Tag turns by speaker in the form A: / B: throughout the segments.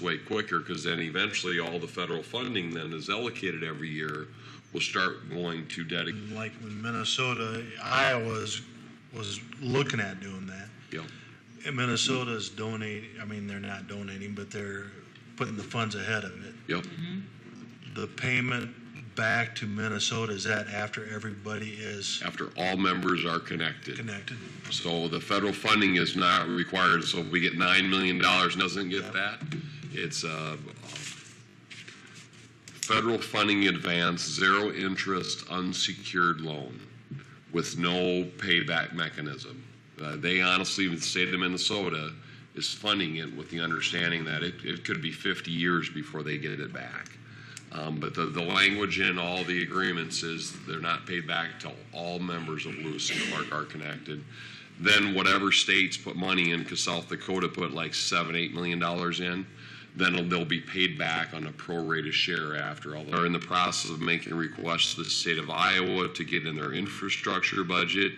A: way quicker because then eventually all the federal funding then is allocated every year will start going to dedicated.
B: Like when Minnesota, Iowa's was looking at doing that.
A: Yeah.
B: And Minnesota's donating, I mean, they're not donating, but they're putting the funds ahead of it.
A: Yep.
B: The payment back to Minnesota, is that after everybody is
A: After all members are connected.
B: connected?
A: So the federal funding is not required. So if we get $9 million, and doesn't get that. It's uh, federal funding advance, zero interest, unsecured loan with no payback mechanism. Uh, they honestly, the state of Minnesota is funding it with the understanding that it, it could be 50 years before they get it back. Um, but the, the language in all the agreements is they're not paid back till all members of Lewis and Clark are connected. Then whatever states put money in, because South Dakota put like seven, eight million dollars in, then they'll be paid back on a prorated share after all. They're in the process of making requests to the state of Iowa to get in their infrastructure budget.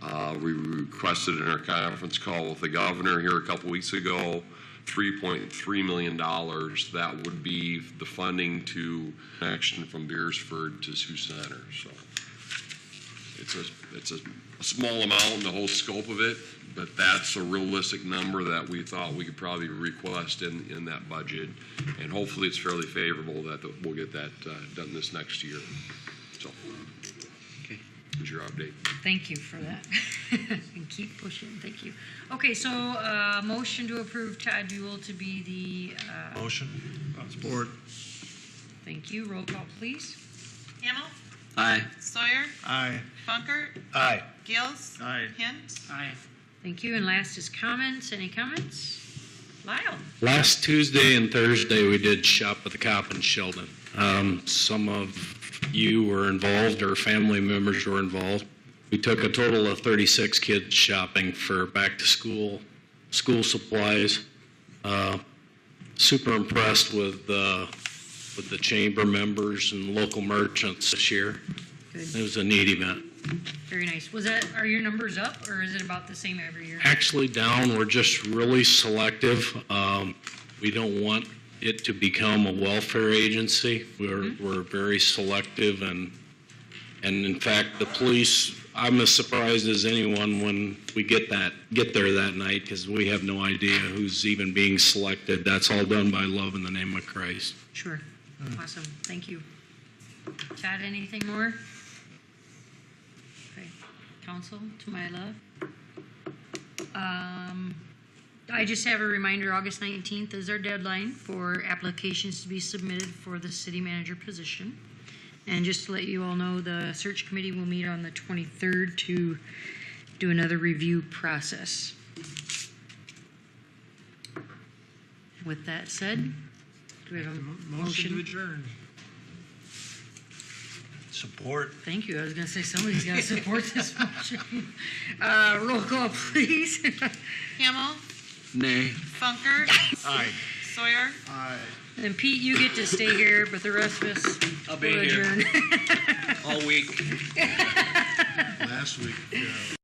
A: Uh, We requested in our conference call with the governor here a couple weeks ago, $3.3 million. That would be the funding to action from Beersford to Sioux Center, so. It's a, it's a small amount in the whole scope of it, but that's a realistic number that we thought we could probably request in, in that budget. And hopefully, it's fairly favorable that we'll get that uh, done this next year. So,
C: Okay.
A: that's your update.
D: Thank you for that. And keep pushing, thank you. Okay, so uh, motion to approve Todd Buell to be the, uh,
B: Motion?
C: Support.
D: thank you, roll call, please.
E: Hamel,
C: Aye.
E: Sawyer,
B: Aye.
E: Funkert,
B: Aye.
E: Gills.
C: Aye.
E: Hint.
C: Aye.
D: Thank you, and last is comments, any comments? Lyle?
F: Last Tuesday and Thursday, we did Shop with the Cop in Sheldon. Um, some of you were involved or family members were involved. We took a total of 36 kids shopping for back to school, school supplies. Uh, super impressed with, uh, with the chamber members and local merchants this year. It
D: Good,
F: was a neat event.
D: very nice. Was that, are your numbers up, or is it about the same every year?
F: Actually down, we're just really selective. Um, We don't want it to become a welfare agency. We're, we're very selective and, and in fact, the police, I'm as surprised as anyone when we get that, get there that night because we have no idea who's even being selected. That's all done by love in the name of Christ.
D: Sure, awesome, thank you. Todd, anything more? Okay, council, to my love. Um, I just have a reminder, August 19th is our deadline for applications to be submitted for the city manager position. And just to let you all know, the search committee will meet on the 23rd to do another review process. With that said, do we have a motion?
C: adjourn.
B: Support?
D: Thank you. I was going to say somebody's got to support this motion. Uh, roll call, please.
E: Hamel,
C: Nay.
E: Funkert.
B: Aye.
E: Sawyer,
C: Aye.
D: and Pete, you get to stay here, but the rest of us
C: I'll be
D: will
C: here
D: adjourn.
C: all week.
B: Last week, uh,